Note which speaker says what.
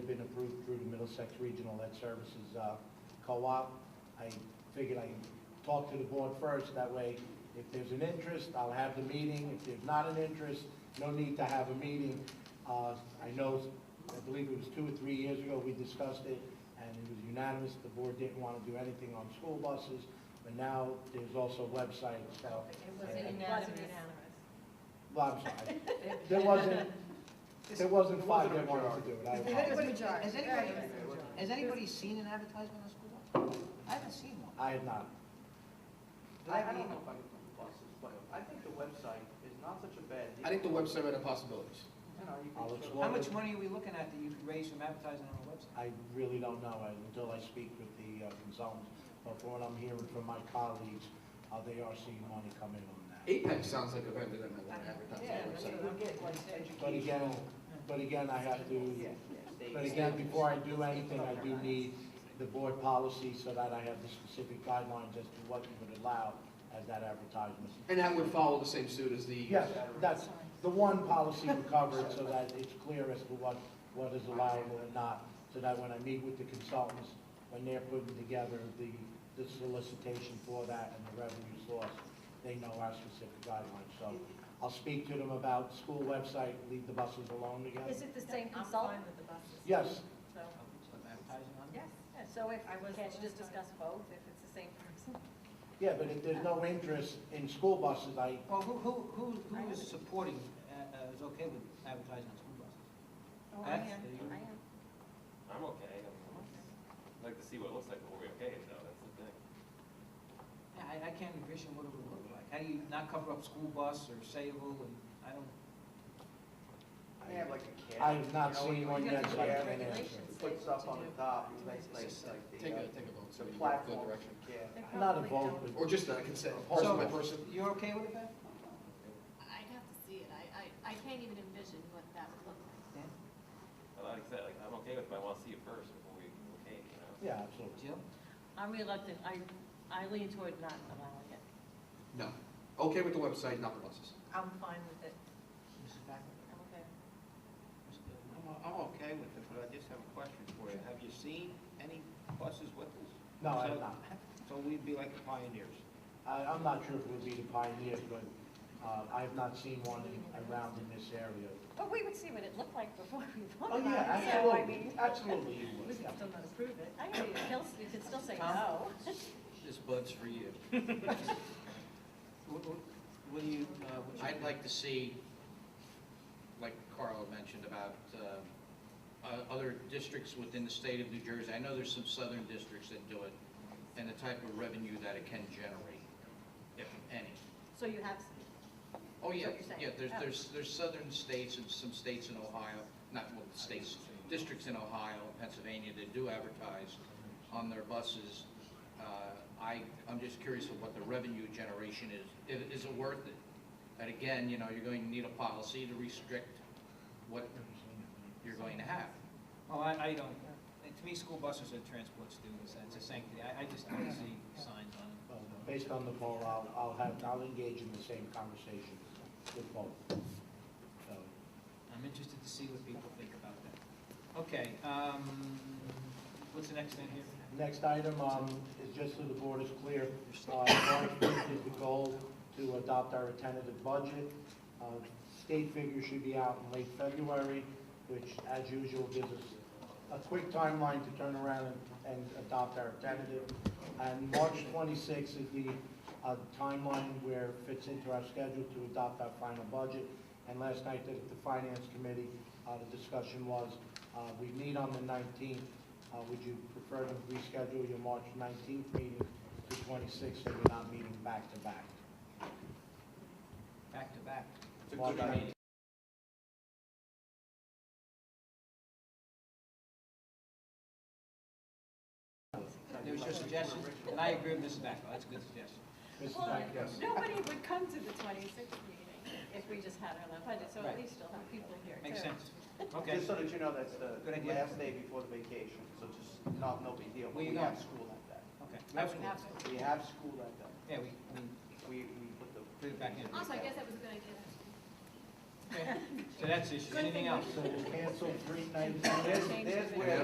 Speaker 1: Middlesex Regional Lead Services uh, Co-op. I figured I'd talk to the board first, that way if there's an interest, I'll have the meeting. If there's not an interest, no need to have a meeting. Uh, I know, I believe it was two or three years ago, we discussed it, and it was unanimous, the board didn't want to do anything on school buses, but now there's also websites,
Speaker 2: It
Speaker 1: so, was
Speaker 2: wasn't
Speaker 3: unanimous.
Speaker 1: well, I'm sorry. There wasn't, there wasn't five that wanted to do it, I
Speaker 2: It was
Speaker 1: apologize.
Speaker 2: majority.
Speaker 4: Has
Speaker 2: Very
Speaker 4: anybody-
Speaker 2: good majority.
Speaker 4: Has anybody seen an advertisement on school bus? I haven't seen one.
Speaker 1: I have not.
Speaker 4: Do
Speaker 5: I
Speaker 4: I
Speaker 5: I don't
Speaker 4: need-
Speaker 5: know if I can put buses, but I think the website is not such a bad deal.
Speaker 6: I think the website had possibilities.
Speaker 5: You know, you
Speaker 1: I'll
Speaker 5: can show-
Speaker 1: explore
Speaker 4: How much money are we looking at that you could raise from advertising on the website?
Speaker 1: I really don't know uh, until I speak with the uh, consultants, but from what I'm hearing from my colleagues, uh, they are seeing money come in on that.
Speaker 6: Apex sounds like a vendor that might want to advertise
Speaker 5: Yeah,
Speaker 6: on the website.
Speaker 5: we'll get like
Speaker 1: But
Speaker 5: education.
Speaker 1: again, but again, I have to,
Speaker 5: Yeah, yeah, they-
Speaker 1: but again, before I do anything, I do need the board policy so that I have the specific guidelines as to what you would allow as that advertisement.
Speaker 6: And that would follow the same suit as the,
Speaker 1: Yes, that's, the one policy would cover it so that it's clear as to what, what is allowable and not, so that when I meet with the consultants, when they're putting together the, the solicitation for that and the revenue source, they know our specific guidelines. So I'll speak to them about school website, leave the buses alone again.
Speaker 3: Is it the
Speaker 2: Same
Speaker 3: same
Speaker 2: consult?
Speaker 3: consultant?
Speaker 1: Yes,
Speaker 3: So,
Speaker 4: Some advertising on it?
Speaker 3: yes, so if,
Speaker 2: I was-
Speaker 3: can't you just discuss both if it's the same person?
Speaker 1: yeah, but if there's no interest in school buses, I,
Speaker 4: Well, who, who, who, who is supporting, uh, uh, is okay with advertising on school buses?
Speaker 3: Oh,
Speaker 4: I
Speaker 3: I
Speaker 4: am.
Speaker 3: am, I am.
Speaker 7: I'm okay. I'm- I'd like to see what it looks like before we okay it though, that's the thing.
Speaker 4: Yeah, I, I can't envision what it would look like. How do you not cover up school bus or Sable and, I don't,
Speaker 5: They have like a cat.
Speaker 1: I have not
Speaker 5: you know,
Speaker 1: seen one
Speaker 5: you
Speaker 1: yet,
Speaker 5: get
Speaker 1: so
Speaker 5: the
Speaker 1: I
Speaker 5: cat,
Speaker 1: can't answer.
Speaker 3: Regulations say
Speaker 5: Puts
Speaker 3: what
Speaker 5: up
Speaker 3: to
Speaker 5: on the
Speaker 3: do.
Speaker 5: top, like, like, like
Speaker 6: take
Speaker 5: the,
Speaker 6: a,
Speaker 5: uh,
Speaker 6: take a vote,
Speaker 5: the
Speaker 6: so we go in
Speaker 5: platform.
Speaker 6: good direction.
Speaker 5: Yeah.
Speaker 3: They
Speaker 1: I'm not
Speaker 3: probably
Speaker 1: involved
Speaker 3: don't.
Speaker 1: with.
Speaker 6: Or just a consent, person
Speaker 1: So-
Speaker 6: by person.
Speaker 4: you're okay with that?
Speaker 8: I'd have to see it. I, I, I can't even envision what that would look like.
Speaker 4: Dan?
Speaker 7: But like I said, like, I'm okay with it, but I want to see it first before we okay it, you know?
Speaker 1: Yeah, absolutely.
Speaker 4: Jill?
Speaker 9: I'm reluctant, I, I lean toward not allowing it.
Speaker 6: No. Okay with the website, not the buses.
Speaker 9: I'm fine with it,
Speaker 4: Mrs. Packard?
Speaker 9: I'm okay.
Speaker 4: Mr. Goodwin?
Speaker 5: I'm, I'm okay with it, but I just have a question for you. Have you seen any buses with this?
Speaker 1: No, I
Speaker 5: So-
Speaker 1: have not.
Speaker 5: So we'd be like the pioneers.
Speaker 1: I, I'm not sure if it would be the Pioneers, but, uh, I have not seen one in- around in this area.
Speaker 3: But we would see what it looked like before we
Speaker 1: Oh,
Speaker 3: voted on
Speaker 1: yeah,
Speaker 3: it, so I
Speaker 1: absolutely,
Speaker 3: mean,
Speaker 1: absolutely you
Speaker 3: we
Speaker 1: would,
Speaker 3: can
Speaker 1: yeah.
Speaker 3: still not approve it. I mean, you can still- you can still say
Speaker 4: Tom?
Speaker 3: no.
Speaker 5: This bud's for you.
Speaker 4: What, what, what do you, uh, what's your?
Speaker 6: I'd like to see, like Carl had mentioned about um, o- other districts within the state of New Jersey. I know there's some southern districts that do it, and the type of revenue that it can generate, if any.
Speaker 3: So you have,
Speaker 6: Oh, yeah,
Speaker 3: what you're saying.
Speaker 6: yeah, there's,
Speaker 3: Oh.
Speaker 6: there's, there's southern states and some states in Ohio, not, well, states, districts in Ohio, Pennsylvania, that do advertise on their buses. Uh, I, I'm just curious of what the revenue generation is, I- is it worth it? And again, you know, you're going to need a policy to restrict what you're going to have.
Speaker 4: Oh, I, I don't, to me, school buses are transport students, that's a sanctity, I, I just don't see signs on them.
Speaker 1: Well, uh, Based on the poll, I'll, I'll have, I'll engage in the same conversation with both. So,
Speaker 4: I'm interested to see what people think about that. Okay, um, what's the next thing here?
Speaker 1: Next item, um, is just so the board is clear, uh, March fifth is the goal to adopt our tentative budget. Uh, State figures should be out in late February, which, as usual, gives us a quick timeline to turn around and, and adopt our tentative. And March twenty-sixth is the, uh, timeline where it fits into our schedule to adopt our final budget. And last night at the finance committee, uh, the discussion was, uh, we meet on the nineteenth. Uh, would you prefer to reschedule your March nineteenth meeting to twenty-sixth, so you're not meeting back to back?
Speaker 4: Back to back.
Speaker 5: It's a
Speaker 1: March
Speaker 5: good idea.
Speaker 1: 19th.
Speaker 4: There was your suggestion, and I agree with Mrs. Backo, that's a good suggestion.
Speaker 1: Mrs.
Speaker 3: Well,
Speaker 1: Knight?
Speaker 3: nobody would come to the twenty-sixth meeting if we just had our own budget, so
Speaker 4: Right.
Speaker 3: at least you'll have people here too.
Speaker 4: Makes sense. Okay,
Speaker 5: Just so that you know, that's the
Speaker 4: Good idea.
Speaker 5: last day before the vacation, so just not, no big deal. But
Speaker 4: Where you
Speaker 5: We have
Speaker 4: going?
Speaker 5: school like that.
Speaker 4: okay.
Speaker 3: We have to.
Speaker 5: We have school like that.
Speaker 4: Yeah, we, we,
Speaker 5: We, we put the.
Speaker 4: Put it back in.
Speaker 8: Also, I guess that was a good idea.
Speaker 4: okay. so that's the issue, anything else?
Speaker 1: So we'll cancel three nights.
Speaker 5: There's,
Speaker 3: Change
Speaker 5: there's
Speaker 3: the